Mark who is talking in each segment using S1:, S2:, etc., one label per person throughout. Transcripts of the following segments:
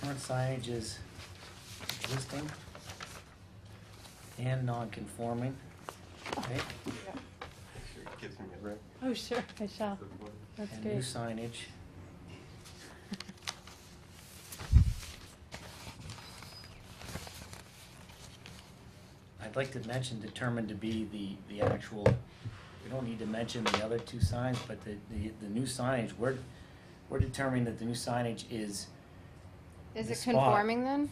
S1: current signage is existing and non-conforming, right?
S2: Gives me a rip.
S3: Oh, sure, I shall. That's
S1: And new
S3: good.
S1: signage. I'd like to mention determined to be the, the actual, we don't need to mention the other two signs, but the, the, the new signage, we're, we're determining that the new signage is,
S4: Is
S1: The
S4: it
S1: spot.
S4: conforming then?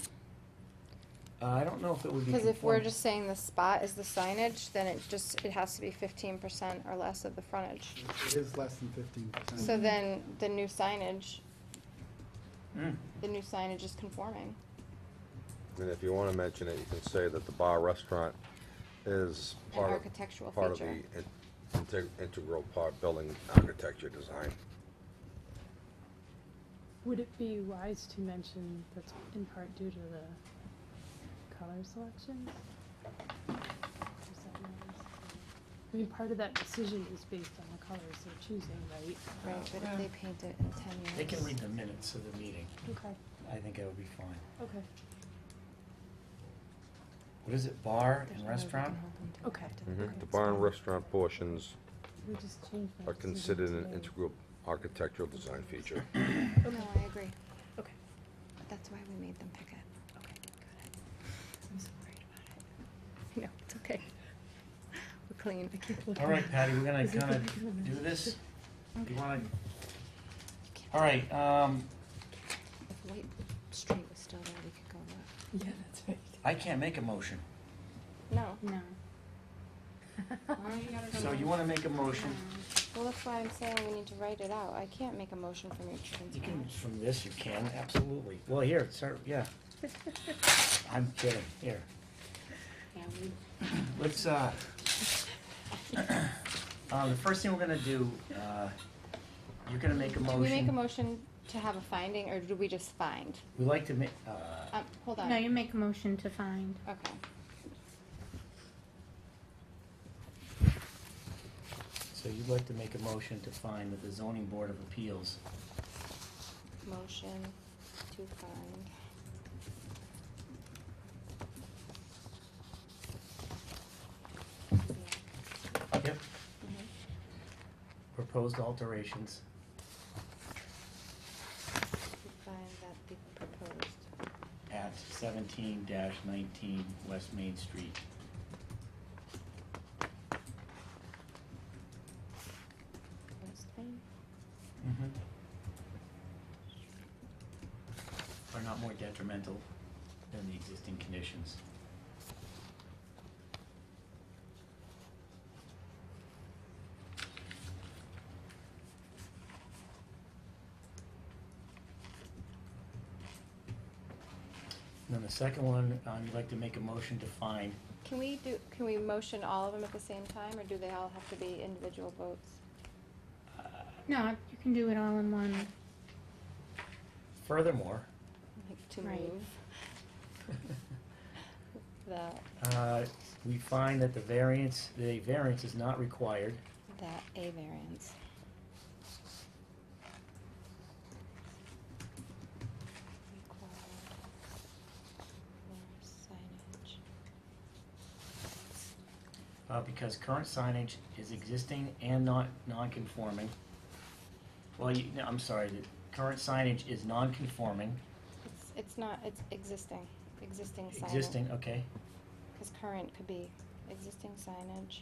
S1: uh, I don't know if it would be
S4: Because if we're
S1: conform-
S4: just saying the spot is the signage, then it just, it has to be fifteen percent or less of the frontage.
S5: It is less than fifteen percent.
S4: So then, the new signage,
S1: Mm.
S4: the new signage is conforming.
S6: And if you wanna mention it, you can say that the bar restaurant is
S4: An
S6: part of.
S4: architectural
S6: Part of the
S4: feature.
S6: in- integ- integral part building architecture design.
S3: Would it be wise to mention that's in part due to the color selections? Does that matter? I mean, part of that decision is based on the colors they're choosing, right?
S4: Right, but if they paint it in ten years.
S1: They can read the minutes of the meeting,
S3: Okay,
S1: I think it would be fine.
S3: okay,
S1: What is it, bar and
S4: There's no way we can
S1: restaurant?
S4: hold them to it
S3: Okay.
S4: after
S3: Mhm.
S4: fact.
S6: The bar and restaurant portions
S3: we just changed that.
S6: are
S3: decision
S6: considered an
S3: today.
S6: integral architectural design feature.
S3: Okay,
S4: No, I agree.
S3: okay,
S4: That's why we made them pick it. Okay, got it. I'm so worried about it. No, it's okay. We're clean. I can't look.
S1: All right,
S3: at it.
S1: Patty, we're gonna
S3: Is it
S1: kinda
S3: gonna be-
S1: do this. You
S4: Okay.
S1: wanna,
S4: You can't
S1: all right, um,
S4: If White Street was still there, we could go there.
S3: Yeah, that's right.
S1: I can't make a motion.
S4: No.
S3: No.
S4: Why you gotta
S1: So you wanna make a motion?
S4: Well, that's why I'm saying we need to write it out. I can't make a motion from your chicken
S1: You can,
S4: scratch.
S1: from this you can, absolutely. Well, here, sir, yeah. I'm kidding, here. Let's, uh, uh, the first thing we're gonna do, uh, you're gonna make a
S4: Do
S1: motion.
S4: we make a motion to have a finding, or do we just find?
S1: We like to make, uh,
S4: Um, hold on.
S7: No, you make a motion to find.
S4: Okay.
S1: so you'd like to make a motion to find that the zoning board of appeals
S4: Motion to find.
S1: Yep.
S4: Mhm.
S1: proposed alterations
S4: To find that the proposed
S1: at seventeen nineteen West Main Street.
S4: West Main
S1: Mm-hmm. Are not more detrimental than the existing conditions. And then the second one, um, you'd like to make a motion to find,
S4: Can we do, can we motion all of them at the same time, or do they all have to be individual votes?
S1: uh,
S7: No, you can do it all in one.
S1: furthermore,
S4: Like to
S7: Right.
S4: move that,
S1: uh, we find that the variance, the variance is not required
S4: that A variance. Required for signage.
S1: Uh, because current signage is existing and not non-conforming. Well, you, no, I'm sorry, the current signage is non-conforming,
S4: It's, it's not, it's existing, existing signage.
S1: existing, okay,
S4: Cause current could be, existing signage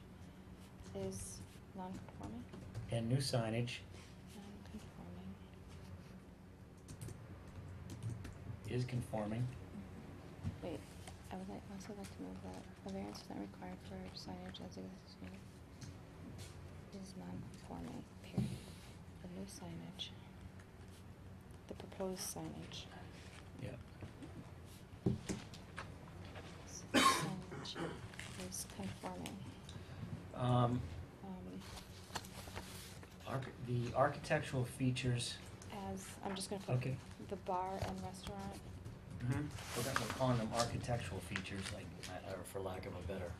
S4: is non-conforming,
S1: and new signage
S4: non-conforming.
S1: is conforming.
S4: Wait, I would like, also like to move that a variance is not required for signage as existing is non-conforming, period. The new signage, the proposed signage.
S1: Yeah.
S4: s- Signage is conforming.
S1: Um,
S4: Um,
S1: arch- the architectural features,
S4: as, I'm just gonna put
S1: okay.
S4: the bar and restaurant,
S1: Mm-hmm. We're gonna we're calling them architectural features, like, I- or for lack of a better.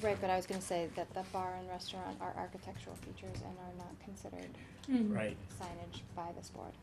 S4: right, but I was gonna say that the bar and
S1: Mm-hmm.
S3: Mm-hmm.
S4: restaurant are architectural features and are not considered
S1: Right.
S4: signage by this board.